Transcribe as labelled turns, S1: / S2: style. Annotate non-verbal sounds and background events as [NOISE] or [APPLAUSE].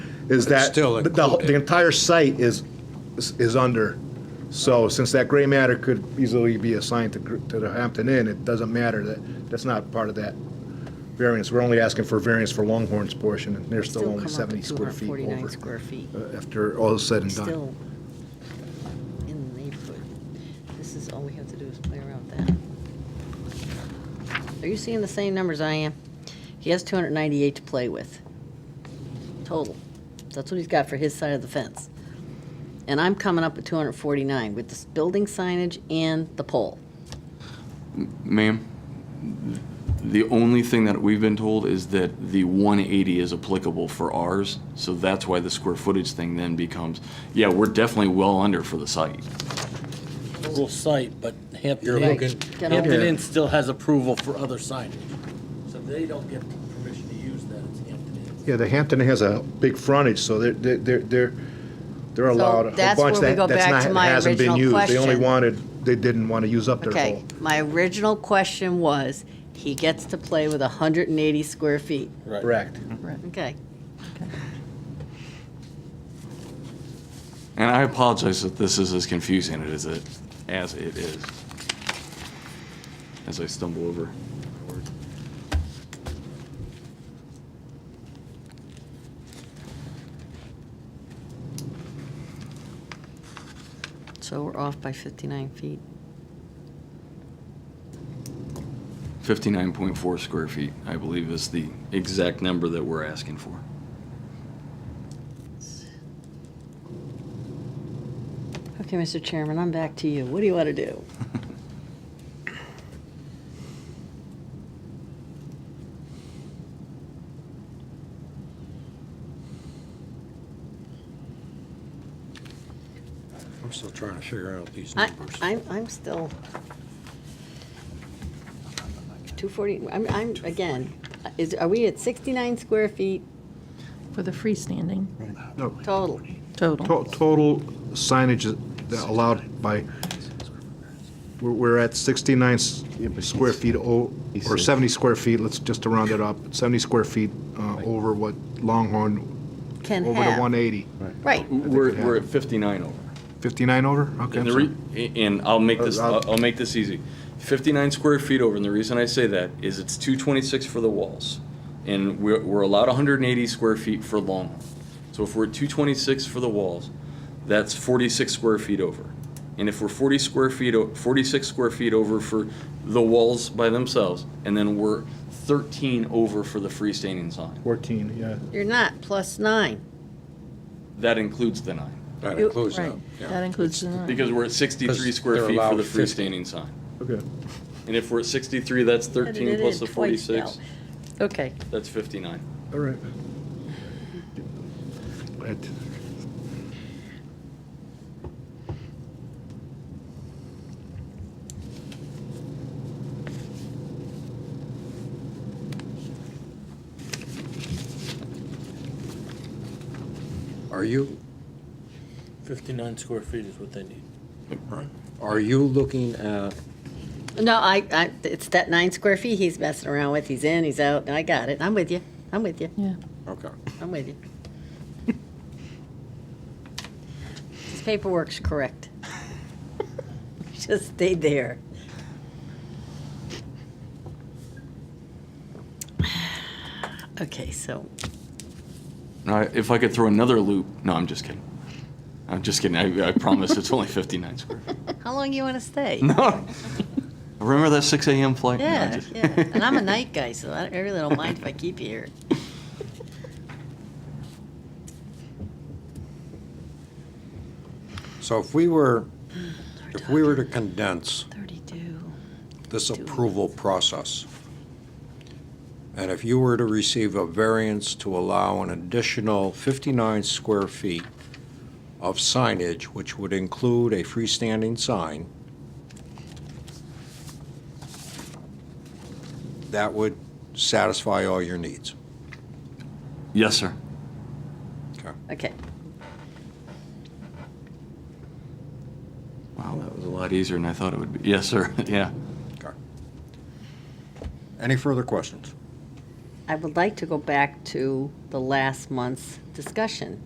S1: is that
S2: still
S1: the, the-
S2: included.
S1: the entire site is, is under. So since that gray matter could easily be assigned to, gr- to the Hampton Inn, it doesn't matter that, that's not part of that variance. We're only asking for variance for Longhorn's portion, and they're still
S3: Still come
S1: only
S3: up
S1: seventy
S3: with
S1: square feet
S3: 249
S1: over.
S3: square feet.
S1: uh, After all is said and done.
S3: Still in the neighborhood. This is, all we have to do is play around with that. Are you seeing the same numbers I am? He has 298 to play with, total. That's what he's got for his side of the fence. And I'm coming up with 249 with this building signage and the pole.
S4: Ma'am, the only thing that we've been told is that the 180 is applicable for ours, so that's why the square footage thing then becomes, yeah, we're definitely well under for the site.
S5: Total site, but
S2: You're
S5: Hampton
S2: looking-
S5: Inn,
S3: Get
S5: Hampton
S3: over-
S5: Inn still has approval for other signage. So if they don't get permission to use that, it's Hampton Inn.
S1: Yeah, the Hampton Inn has a big frontage, so they're, they're- they're, they're, they're allowed a whole
S3: that's
S1: bunch
S3: where we
S1: that,
S3: go
S1: that's
S3: back to
S1: not,
S3: my
S1: hasn't been
S3: original
S1: used. They only
S3: question.
S1: wanted, they didn't want to use up their
S3: Okay,
S1: whole.
S3: my original question was, he gets to play with 180 square feet.
S1: Correct.
S3: Okay.
S4: And I apologize that this is as confusing as it, as it is. As I stumble over. my word.
S3: So we're off by 59 feet.
S4: 59.4 square feet, I believe, is the exact number that we're asking for.
S3: Okay, Mr. Chairman, I'm back to you. What do you want to do?
S2: I'm still trying to figure out these
S3: I,
S2: numbers.
S3: I'm, I'm still. 240, I'm, I'm, again, is, are we at 69 square feet
S6: For the freestanding
S1: No,
S3: total?
S1: to-
S6: total.
S1: total signage that allowed by, we're, we're at sixty-nine s- square feet, o- or seventy square feet, let's just to round it up, seventy square feet uh, over what Longhorn,
S3: Can
S1: over the one
S3: have.
S1: eighty.
S3: Right,
S4: We're, we're at 59 over.
S1: Fifty-nine over? Okay, I'm
S4: And the
S1: sorry.
S4: re- a- and I'll make this,
S1: Uh, I'll-
S4: I'll I'll make this easy. 59 square feet over, and the reason I say that is it's 226 for the walls. And we're, we're allowed 180 square feet for long. So if we're at 226 for the walls, that's 46 square feet over. And if we're 40 square feet, o- 46 square feet over for the walls by themselves, and then we're 13 over for the freestanding sign.
S1: Fourteen, yeah.
S3: you're not, plus nine.
S4: That includes the nine,
S2: That
S3: You-
S2: includes that.
S6: Right,
S2: yeah.
S6: that includes the nine.
S4: because we're at 63
S2: Because
S4: square
S2: they're
S4: feet for
S2: allowed
S4: the
S2: 50.
S4: freestanding sign.
S1: Okay.
S4: And if we're at 63, that's
S3: Added it
S4: 13
S3: in
S4: plus the
S3: twice now.
S4: 46,
S3: Okay,
S4: that's 59.
S1: All right. Right.
S2: Are you,
S5: Fifty-nine square feet is what they need.
S2: are you looking at,
S3: no, I, I, it's that nine square feet he's messing around with. He's in, he's out, I got it. I'm with you, I'm with you,
S6: Yeah,
S2: okay,
S3: I'm with you. This paperwork's correct. [LAUGHS] Just stayed there. Okay, so,
S4: Now, if I could throw another loop, no, I'm just kidding. I'm just kidding. I, I promise it's only 59 square.
S3: [LAUGHS]
S4: feet.
S3: how long you want to stay?
S4: No. Remember that 6 a.m. flight? No, I'm
S3: Yeah,
S4: just-
S3: yeah, and I'm a night guy, so I I really don't mind if I keep you here.
S2: so if we were, if we were to condense
S3: 32.
S2: this approval process, and if you were to receive a variance to allow an additional 59 square feet of signage, which would include a freestanding sign, that would satisfy all your needs.
S4: [LAUGHS] Yes, sir.
S3: Okay,
S4: Wow, that was a lot easier than I thought it would be. Yes, sir. [LAUGHS] Yeah.
S2: Okay. Any further questions?
S3: I would like to go back to the last month's discussion.